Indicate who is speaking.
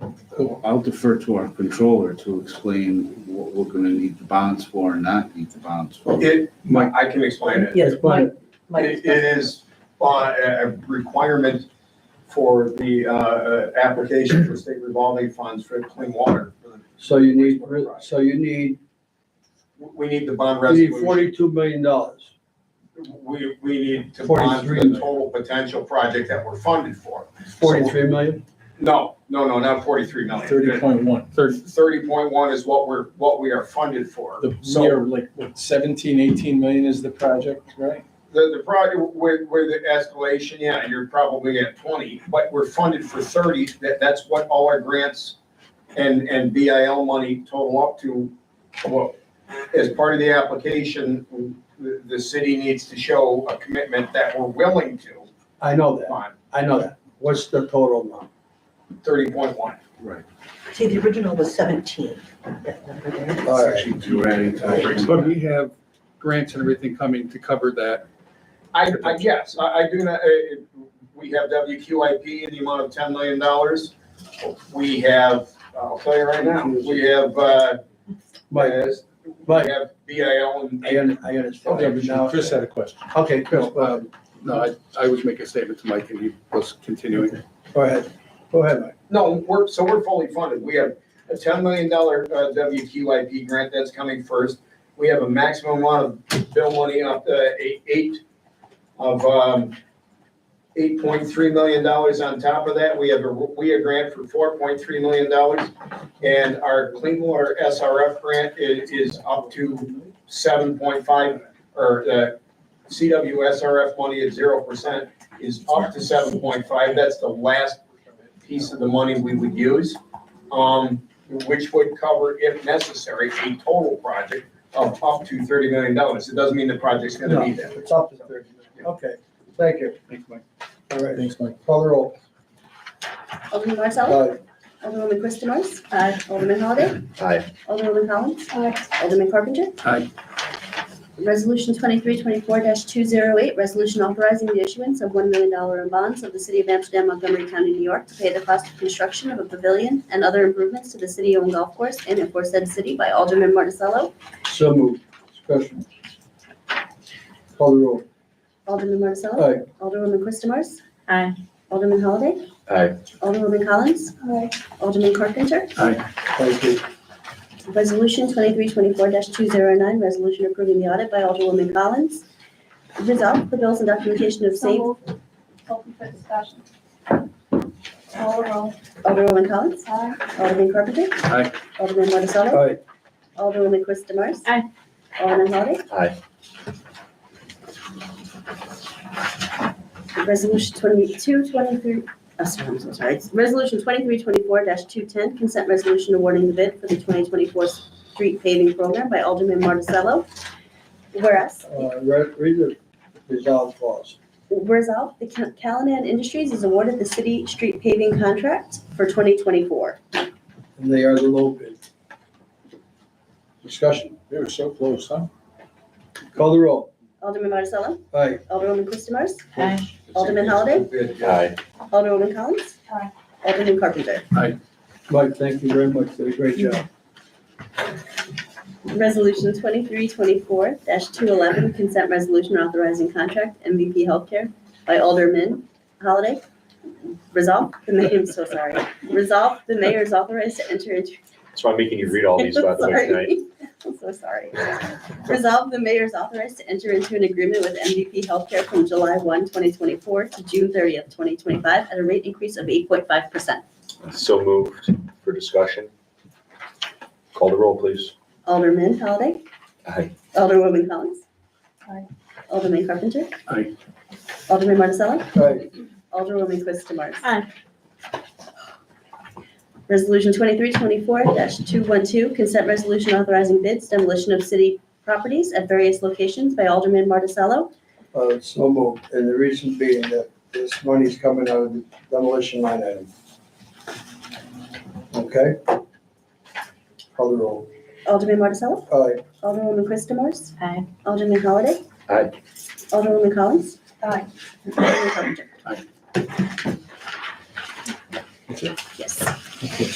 Speaker 1: Well, Oh, I'll defer to our controller to explain what we're gonna need the bonds for and not need the bonds for.
Speaker 2: It, Mike, I can explain it.
Speaker 3: Yes, but
Speaker 2: It it is uh, a a requirement for the uh, application for state revolving funds for clean water.
Speaker 4: So you need, so you need,
Speaker 2: We need the bond
Speaker 4: you need
Speaker 2: resolution.
Speaker 4: forty-two million dollars.
Speaker 2: We, we need to bond for
Speaker 4: 43
Speaker 2: the
Speaker 4: million.
Speaker 2: total potential project that we're funded for.
Speaker 4: Forty-three million?
Speaker 2: No, no, no, not forty-three million.
Speaker 5: Thirty point one. Thirty.
Speaker 2: Thirty point one is what we're, what we are funded for.
Speaker 5: The,
Speaker 2: So-
Speaker 5: we are like, what, seventeen, eighteen million is the project, right?
Speaker 2: The, the project with, with the escalation, yeah, you're probably at twenty, but we're funded for thirty, that, that's what all our grants and, and BIL money total up to. Well, as part of the application, the, the city needs to show a commitment that we're willing to
Speaker 4: I know that,
Speaker 2: on
Speaker 4: I know that. What's the total amount?
Speaker 2: thirty point one.
Speaker 1: Right.
Speaker 3: see, the original was seventeen, that number there.
Speaker 4: All right,
Speaker 1: You're adding to.
Speaker 6: But we have grants and everything coming to cover that.
Speaker 2: I, I guess, I, I do not, uh, we have WQIP in the amount of ten million dollars. We have, I'll tell you right now, we have, uh,
Speaker 4: Mike,
Speaker 2: We
Speaker 4: Mike,
Speaker 2: have BIL and.
Speaker 4: I un- I understand.
Speaker 5: Yeah, but
Speaker 4: Now-
Speaker 5: Chris had a question.
Speaker 4: Okay, Chris, uh,
Speaker 6: Um, No, I, I was making a statement to Mike and he was continuing.
Speaker 4: go ahead, go ahead, Mike.
Speaker 2: No, we're, so we're fully funded. We have a ten million dollar uh, WQIP grant that's coming first. We have a maximum amount of bill money up to eight, eight of, um, eight point three million dollars on top of that. We have a, we a grant for four point three million dollars. And our clean water SRF grant is, is up to seven point five, or, uh, CWSRF money at zero percent is up to seven point five. That's the last piece of the money we would use, um, which would cover, if necessary, a total project of up to thirty million dollars. It doesn't mean the project's gonna be that.
Speaker 4: It's up to thirty million. Okay, thank you.
Speaker 6: Thanks, Mike.
Speaker 4: All right,
Speaker 5: Thanks, Mike.
Speaker 4: call the roll.
Speaker 7: Alderman Marzella?
Speaker 4: Uh,
Speaker 7: Alderwoman Quistamars, Aye. Alderman Holliday?
Speaker 4: Aye.
Speaker 7: Alderwoman Collins? Aye. Alderman Carpenter?
Speaker 6: Aye.
Speaker 7: Resolution twenty-three twenty-four two zero eight, resolution authorizing the issuance of one million dollar in bonds of the city of Amsterdam, Montgomery County, New York to pay the cost of construction of a pavilion and other improvements to the city-owned golf course in and for said city by Alderman Marticello.
Speaker 4: So moved, discussion. Call the roll.
Speaker 7: Alderman Marticello?
Speaker 4: Aye.
Speaker 7: Alderwoman Quistamars,
Speaker 8: Aye.
Speaker 7: Alderman Holliday?
Speaker 4: Aye.
Speaker 7: Alderwoman Collins? Aye. Alderman Carpenter?
Speaker 4: Thank you.
Speaker 7: Resolution twenty-three twenty-four two zero nine, resolution approving the audit by Alderwoman Collins. Resolve the bills and documentation of same,
Speaker 8: Open for discussion. Call the roll.
Speaker 7: Alderwoman Collins,
Speaker 8: Aye.
Speaker 7: Alderman Carpenter.
Speaker 6: Aye.
Speaker 7: Alderman Marticello,
Speaker 4: Aye,
Speaker 7: Alderwoman Chris Demers.
Speaker 8: Aye.
Speaker 7: Alderman Holliday.
Speaker 4: Aye.
Speaker 7: Resolution twenty-two twenty-three, oh, sorry, I'm so sorry. It's Resolution twenty-three twenty-four two ten, consent resolution awarding the bid for the twenty twenty-four street paving program by Alderman Marticello. Whereas
Speaker 4: uh, re- read the resolve clause.
Speaker 7: Resolved, the Cal- Callahan Industries is awarded the city street paving contract for 2024.
Speaker 4: and they are the low bid. Discussion,
Speaker 5: We were so close, huh?
Speaker 4: call the roll.
Speaker 7: Alderman Marticello,
Speaker 4: Aye,
Speaker 7: Alderwoman Christomars,
Speaker 8: Aye.
Speaker 7: Alderman Holliday?
Speaker 2: Aye.
Speaker 7: Alderwoman Collins,
Speaker 8: Aye.
Speaker 7: Alderman Carpenter.
Speaker 4: Mike, thank you very much, did a great job.
Speaker 7: Resolution 2324-211, consent resolution authorizing contract MVP Healthcare by Alderman Holliday. Resolved, the mayor, I'm so sorry. Resolved, the mayor is authorized to enter into
Speaker 9: That's why I'm making you read all these, by the way,
Speaker 7: Sorry.
Speaker 9: tonight.
Speaker 7: I'm so sorry. Resolve the mayor's authorized to enter into an agreement with MVP Healthcare from July 1, 2024 to June 30th, 2025 at a rate increase of 8.5%.
Speaker 9: So moved for discussion. Call the roll, please.
Speaker 7: Alderman Holliday?
Speaker 9: Aye.
Speaker 7: Alderwoman Collins?
Speaker 8: Aye.
Speaker 7: Alderman Carpenter?
Speaker 6: Aye.
Speaker 7: Alderman Marticello?
Speaker 4: Aye,
Speaker 7: Alderwoman Quistamars?
Speaker 8: Aye.
Speaker 7: Resolution 2324-212, consent resolution authorizing bids demolition of city properties at various locations by Alderman Marticello.
Speaker 4: uh, so moved, and the reason being that this money's coming out of the demolition line item. Okay? Call the roll.
Speaker 7: Alderman Marticello?
Speaker 4: Aye,
Speaker 7: Alderwoman Christomars?
Speaker 8: Aye.
Speaker 7: Alderman Holliday?
Speaker 9: Aye.
Speaker 7: Alderwoman Collins?
Speaker 8: Aye.
Speaker 7: Alderman Carpenter?
Speaker 6: Aye.
Speaker 7: Yes.